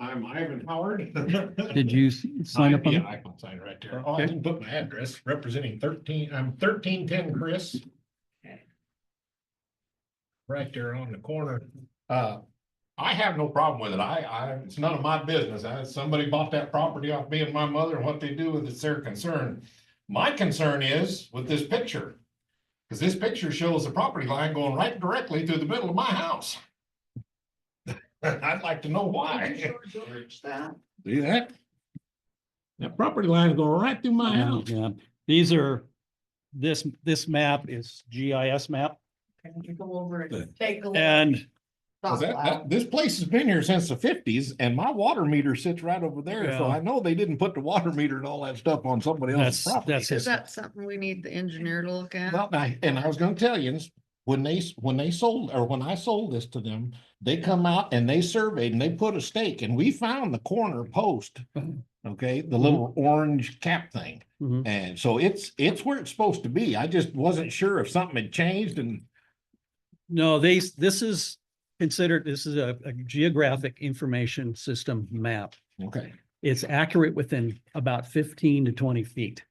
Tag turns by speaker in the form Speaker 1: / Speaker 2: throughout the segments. Speaker 1: I'm Ivan Howard.
Speaker 2: Did you s- sign up on
Speaker 1: Yeah,
Speaker 2: it?
Speaker 1: I can sign right there. Oh, I
Speaker 2: Okay.
Speaker 1: didn't put my address representing thirteen, I'm thirteen ten Chris. Right there on the corner. Uh, I have no problem with it. I, I, it's none of my business. I, somebody bought that property off me and my mother and what they do with it's their concern. My concern is with this picture. Cause this picture shows the property line going right directly through the middle of my house. I'd like to know why. See that? That property line go right through my
Speaker 2: Yeah,
Speaker 1: house.
Speaker 2: yeah. These are, this, this map is GIS map
Speaker 3: Can you go over
Speaker 1: Good.
Speaker 3: and take a look?
Speaker 2: and
Speaker 1: 'Cause that- that- this place has been here since the fifties and my water meter sits right over there, so
Speaker 2: Yeah.
Speaker 1: I know they didn't put the water meter and all that stuff on somebody else's
Speaker 2: that's,
Speaker 1: property.
Speaker 2: that's
Speaker 4: Is
Speaker 2: his,
Speaker 4: that something we need the engineer to look at?
Speaker 1: Well, I, and I was gonna tell you, this, when they, s- when they sold, or when I sold this to them, they come out and they surveyed and they put a stake and we found the corner post.
Speaker 2: Mhm.
Speaker 1: Okay, the little orange cap thing.
Speaker 2: Mhm.
Speaker 1: And so it's, it's where it's supposed to be. I just wasn't sure if something had changed and,
Speaker 2: no, they, s- this is considered, this is a a geographic information system map.
Speaker 1: okay,
Speaker 2: It's accurate within about fifteen to twenty feet.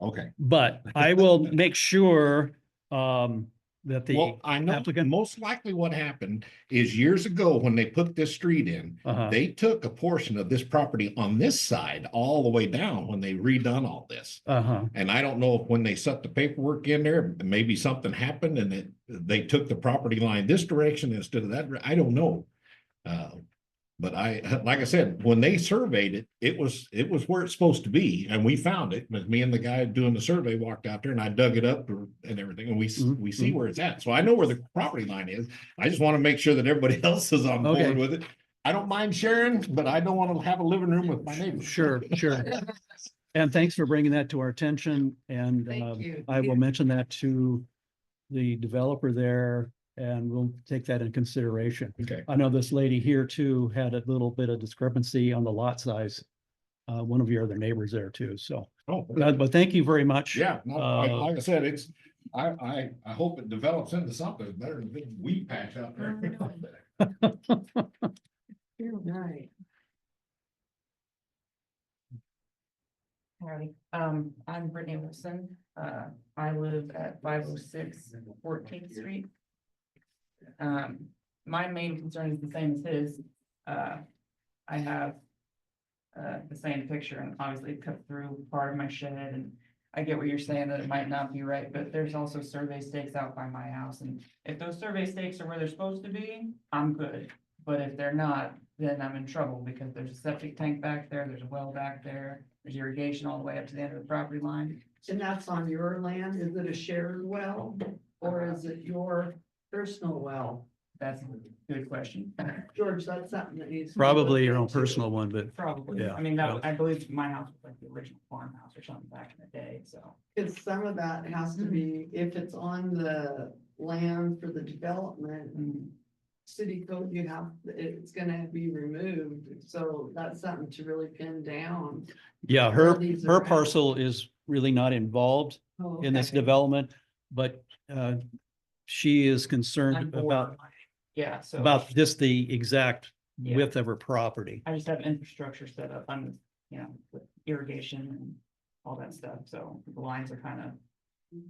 Speaker 1: okay.
Speaker 2: But I will make sure um that the,
Speaker 1: Well, I know,
Speaker 2: applicant-
Speaker 1: most likely what happened is years ago when they put this street in,
Speaker 2: uh-huh,
Speaker 1: they took a portion of this property on this side all the way down when they redone all this.
Speaker 2: uh-huh,
Speaker 1: And I don't know if when they set the paperwork in there, maybe something happened and it, they took the property line this direction instead of that, I don't know. Uh, But I, like I said, when they surveyed it, it was, it was where it's supposed to be and we found it, but me and the guy doing the survey walked out there and I dug it up and everything and we, s-
Speaker 2: Mhm,
Speaker 1: we see where it's at. So I know where the property line is. I just want to make sure that everybody else is on
Speaker 2: Okay.
Speaker 1: board with it. I don't mind sharing, but I don't want to have a living room with my neighbors.
Speaker 2: sure, sure. And thanks for bringing that to our attention and
Speaker 3: Thank
Speaker 2: um,
Speaker 3: you.
Speaker 2: I will mention that to the developer there and we'll take that in consideration.
Speaker 1: Okay,
Speaker 2: I know this lady here too had a little bit of discrepancy on the lot size. Uh, one of your other neighbors there too, so,
Speaker 1: oh,
Speaker 2: Uh, but thank you very much.
Speaker 1: Yeah, no, like,
Speaker 2: Uh,
Speaker 1: like I said, it's, I, I, I hope it develops into something better than a big weed patch out there.
Speaker 3: You're right. Hi, um, I'm Brittany Wilson, uh, I live at 506 14th street. Um, my main concern is the same as his, uh, I have. Uh, the same picture and obviously it cut through part of my shed and I get what you're saying that it might not be right, but there's also survey stakes out by my house and. If those survey stakes are where they're supposed to be, I'm good. But if they're not, then I'm in trouble because there's a septic tank back there, there's a well back there, there's irrigation all the way up to the end of the property line.
Speaker 5: And that's on your land, is it a shared well, or is it your personal well?
Speaker 3: That's a good question.
Speaker 5: George, that's something that needs. to be
Speaker 2: Probably
Speaker 5: looked
Speaker 2: your own
Speaker 5: into.
Speaker 2: personal one, but
Speaker 3: Probably.
Speaker 2: Yeah,
Speaker 3: I mean, that,
Speaker 2: yeah.
Speaker 3: I believe my house was like the original farmhouse or something back in the day, so.
Speaker 5: Cause some of that has to be, if it's on the land for the development,
Speaker 3: mm,
Speaker 5: city code, you have, it's gonna be removed. So that's something to really pin down.
Speaker 2: yeah, her,
Speaker 5: These are
Speaker 2: her
Speaker 5: out.
Speaker 2: parcel is really not involved.
Speaker 5: Oh,
Speaker 2: in this
Speaker 5: okay.
Speaker 2: development, but uh, she is
Speaker 3: I'm
Speaker 2: concerned about,
Speaker 3: borderline. Yeah, so.
Speaker 2: about just the exact
Speaker 3: Yeah.
Speaker 2: width of her property.
Speaker 3: I just have infrastructure set up on, you know, with irrigation and all that stuff, so the lines are kind of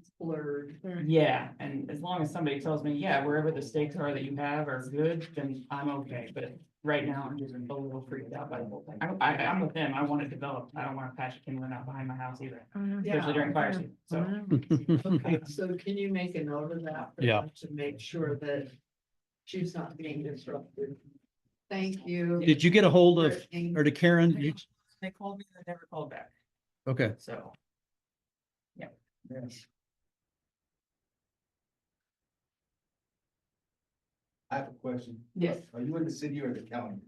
Speaker 5: It's Blurred.
Speaker 3: Yeah, and as long as somebody tells me, yeah, wherever the stakes are that you have are good, then I'm okay, but right now I'm just a little freaked out by the whole thing. I, I, I'm with them, I want it developed, I don't want a patch of kindling out behind my house either, especially during fire season, so.
Speaker 5: Okay, so can you make a note of that? for
Speaker 2: Yeah.
Speaker 5: them To make sure that she's not being disrupted. Thank you.
Speaker 2: Did you get a hold of,
Speaker 5: Brittany.
Speaker 2: or to Karen? You-
Speaker 3: They called me, they never called back,
Speaker 2: Okay,
Speaker 3: so. Yep.
Speaker 6: I have a question.
Speaker 3: Yes.
Speaker 6: Are you in the city or the county?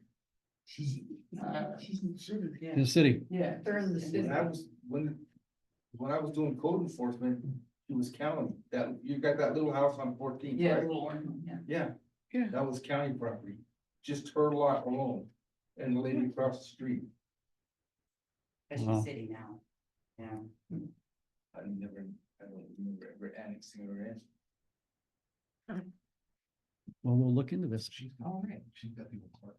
Speaker 3: Uh,
Speaker 2: in the city.
Speaker 3: Yeah.
Speaker 5: They're in the city.
Speaker 6: When I was, when, when I was doing code enforcement, it was county, that, you got that little house on fourteen,
Speaker 3: Yeah.
Speaker 6: right? Yeah.
Speaker 4: Yeah.
Speaker 6: That was county property, just her lot alone, and the lady across the street,
Speaker 2: she's Wow.
Speaker 3: city now. Yeah.
Speaker 6: I never, I don't remember ever annexing her in.
Speaker 2: Well, we'll look into this.
Speaker 6: She's
Speaker 3: All right.
Speaker 6: she's got the apartment.